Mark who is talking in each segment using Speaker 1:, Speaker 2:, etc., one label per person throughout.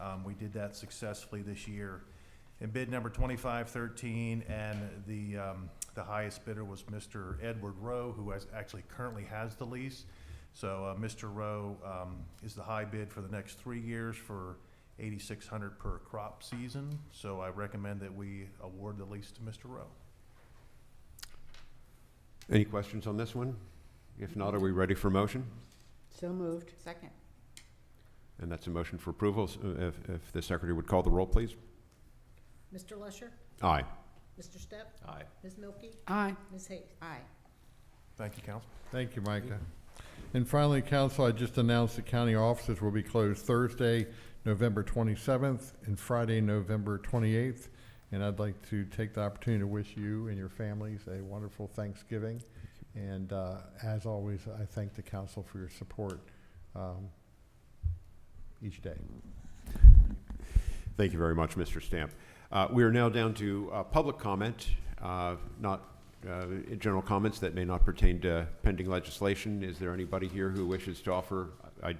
Speaker 1: Um, We did that successfully this year. In bid number 2513, and the, um, the highest bidder was Mr. Edward Rowe, who has, actually currently has the lease. So uh, Mr. Rowe um, is the high bid for the next three years for 8,600 per crop season. So I recommend that we award the lease to Mr. Rowe.
Speaker 2: Any questions on this one? If not, are we ready for motion?
Speaker 3: So moved.
Speaker 4: Second.
Speaker 2: And that's a motion for approval. So, uh, If, if the secretary would call the roll, please.
Speaker 5: Mr. Lusher?
Speaker 2: Aye.
Speaker 5: Mr. Step?
Speaker 6: Aye.
Speaker 5: Ms. Milky?
Speaker 3: Aye.
Speaker 5: Ms. Hayes?
Speaker 4: Aye.
Speaker 1: Thank you, Council.
Speaker 7: Thank you, Micah. And finally, council, I just announced the county offices will be closed Thursday, November 27th, and Friday, November 28th. And I'd like to take the opportunity to wish you and your families a wonderful Thanksgiving. And uh, as always, I thank the council for your support um, each day.
Speaker 2: Thank you very much, Mr. Stamp. Uh, We are now down to uh, public comment, uh, not uh, general comments that may not pertain to pending legislation. Is there anybody here who wishes to offer? I-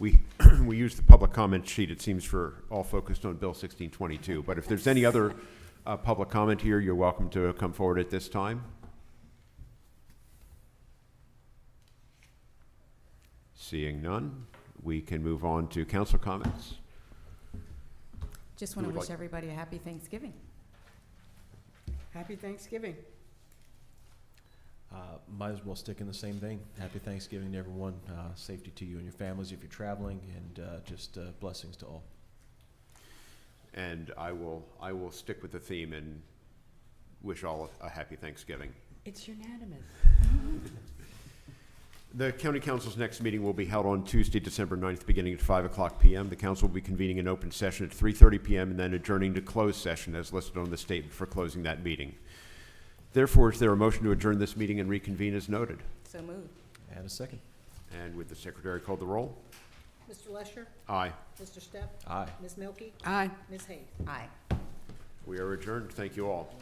Speaker 2: We, we use the public comment sheet, it seems, for all focused on Bill 1622. But if there's any other uh, public comment here, you're welcome to come forward at this time. Seeing none, we can move on to council comments.
Speaker 4: Just
Speaker 2: Who
Speaker 4: want to
Speaker 2: would
Speaker 4: wish
Speaker 2: like-
Speaker 4: everybody a happy Thanksgiving.
Speaker 3: Happy Thanksgiving.
Speaker 6: Uh, Might as well stick in the same vein. Happy Thanksgiving to everyone. Uh, Safety to you and your families if you're traveling, and uh, just uh, blessings to all.
Speaker 2: And I will, I will stick with the theme and wish all a happy Thanksgiving.
Speaker 3: It's unanimous.
Speaker 2: The county council's next meeting will be held on Tuesday, December 9th, beginning at 5 o'clock PM. The council will be convening an open session at 3:30 PM and then adjourning to closed session as listed on the statement for closing that meeting. Therefore, is there a motion to adjourn this meeting and reconvene as noted?
Speaker 4: So moved.
Speaker 6: And a second.
Speaker 2: And would the secretary call the roll?
Speaker 5: Mr. Lusher?
Speaker 2: Aye.
Speaker 5: Mr. Step?
Speaker 6: Aye.
Speaker 5: Ms. Milky?
Speaker 3: Aye.
Speaker 5: Ms. Hayes?
Speaker 4: Aye.
Speaker 2: We are adjourned. Thank you all.